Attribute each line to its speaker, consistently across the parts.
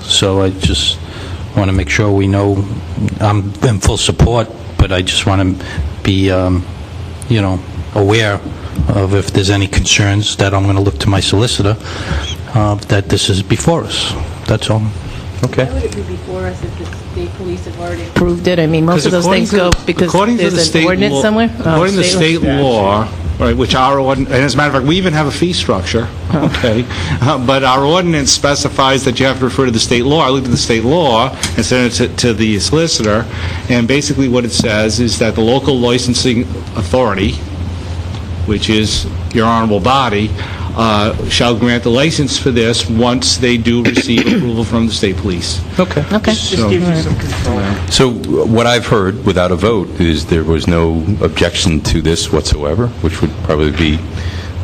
Speaker 1: so I just want to make sure we know, I'm in full support, but I just want to be, um, you know, aware of if there's any concerns, that I'm going to look to my solicitor, uh, that this is before us. That's all.
Speaker 2: Okay.
Speaker 3: Why would it be before us if the state police have already approved
Speaker 4: approved it? I mean, most of those things go because
Speaker 2: According to the
Speaker 4: there's an
Speaker 2: state
Speaker 4: ordinance
Speaker 2: law-
Speaker 4: somewhere? Oh,
Speaker 2: According to state
Speaker 4: law.
Speaker 2: law, right, which our, ordin- and as a matter of fact, we even have a fee structure,
Speaker 4: Oh.
Speaker 2: okay? Uh, But our ordinance specifies that you have to refer to the state law. I looked at the state law and sent it to- to the solicitor, and basically what it says is that the local licensing authority, which is your honorable body, uh, shall grant the license for this once they do receive approval from the state police.
Speaker 5: Okay.
Speaker 4: Okay.
Speaker 2: So-
Speaker 5: So what I've heard, without a vote, is there was no objection to this whatsoever, which would probably be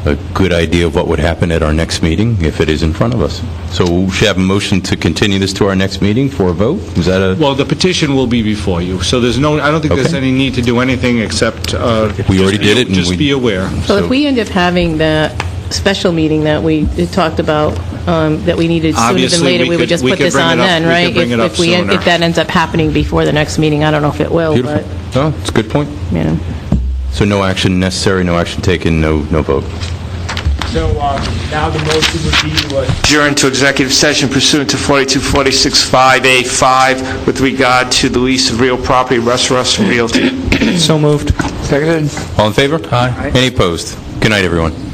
Speaker 5: a good idea of what would happen at our next meeting if it is in front of us. So we should have a motion to continue this to our next meeting for a vote? Is that a,
Speaker 2: Well, the petition will be before you, so there's no, I don't think there's
Speaker 5: Okay.
Speaker 2: any need to do anything except... uh,
Speaker 5: We already
Speaker 2: just-
Speaker 5: did it and we-
Speaker 2: Just be aware.
Speaker 4: So if we end up having that special meeting that we talked about, um, that we needed sooner than
Speaker 2: Obviously,
Speaker 4: later,
Speaker 2: we
Speaker 4: we would
Speaker 2: could-
Speaker 4: just
Speaker 2: we
Speaker 4: put
Speaker 2: could
Speaker 4: this
Speaker 2: bring
Speaker 4: on
Speaker 2: it up-
Speaker 4: then,
Speaker 2: we could
Speaker 4: right?
Speaker 2: bring
Speaker 4: If-
Speaker 2: it up
Speaker 4: if we end-
Speaker 2: sooner.
Speaker 4: If that ends up happening before the next meeting, I don't know if it will,
Speaker 5: beautiful?
Speaker 4: but,
Speaker 5: No, it's a good point.
Speaker 4: you know.
Speaker 5: So no action necessary, no action taken, no, no vote.
Speaker 6: So um, now the motion would be to uh,
Speaker 7: adjourn to executive session pursuant to 42465A5 with regard to the lease of real property, Russ Russ Realty.
Speaker 5: All in favor? Aye. Any opposed? Good night, everyone.